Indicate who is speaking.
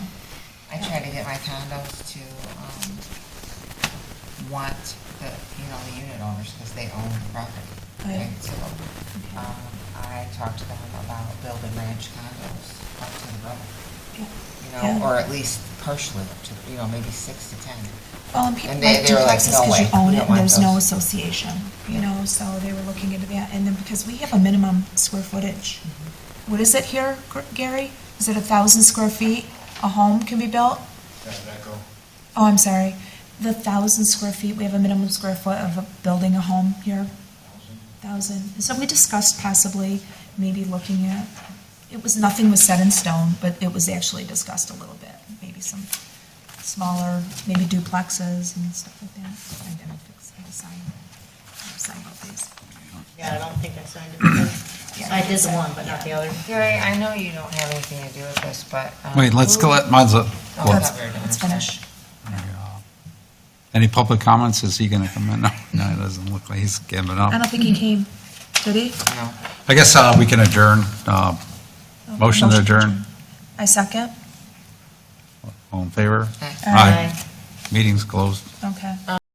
Speaker 1: get my condos to, um, want the, you know, the unit owners, because they own the property.
Speaker 2: Right.
Speaker 1: And so, um, I talked to them about building ranch condos up to the road, you know,
Speaker 2: Yeah.
Speaker 1: or at least partially up to, you know, maybe six to ten.
Speaker 2: Well, and people
Speaker 1: And they-
Speaker 2: like
Speaker 1: they were like,
Speaker 2: duplexes
Speaker 1: "No
Speaker 2: because you
Speaker 1: way, we
Speaker 2: own it
Speaker 1: don't
Speaker 2: and
Speaker 1: want
Speaker 2: there's no
Speaker 1: those."
Speaker 2: association, you know, so they were looking into that. And then because we have a minimum square footage.
Speaker 1: Mm-hmm.
Speaker 2: What is it here, Gr- Gary? Is it a thousand square feet a home can be built?
Speaker 3: That's an echo.
Speaker 2: Oh, I'm sorry. The thousand square feet, we have a minimum square foot of a- building a home here, thousand. And so we discussed possibly maybe looking at, it was, nothing was set in stone, but it was actually discussed a little bit. Maybe some smaller, maybe duplexes and stuff like that. I didn't fix, I signed, I signed all these.
Speaker 4: Yeah, I don't think I signed it.
Speaker 2: Yeah.
Speaker 4: I did the one, but not the other.
Speaker 1: Gary, I know you don't have anything to do with this, but. um,
Speaker 5: Wait, let's,
Speaker 1: who-
Speaker 5: go- let- mine's up.
Speaker 1: Oh,
Speaker 5: Well,
Speaker 1: that's
Speaker 2: Let's-
Speaker 1: very good.
Speaker 2: Let's finish.
Speaker 5: Any public comments? Is he going to come in? No, no, it doesn't look like he's giving
Speaker 2: I
Speaker 5: up.
Speaker 2: don't think he came. Did he?
Speaker 1: No.
Speaker 5: I guess uh, we can adjourn. uh,
Speaker 2: Oh,
Speaker 5: Motion to adjourn.
Speaker 2: I second.
Speaker 5: All in favor?
Speaker 1: Aye.
Speaker 5: Aye. Meeting's closed.
Speaker 2: Okay.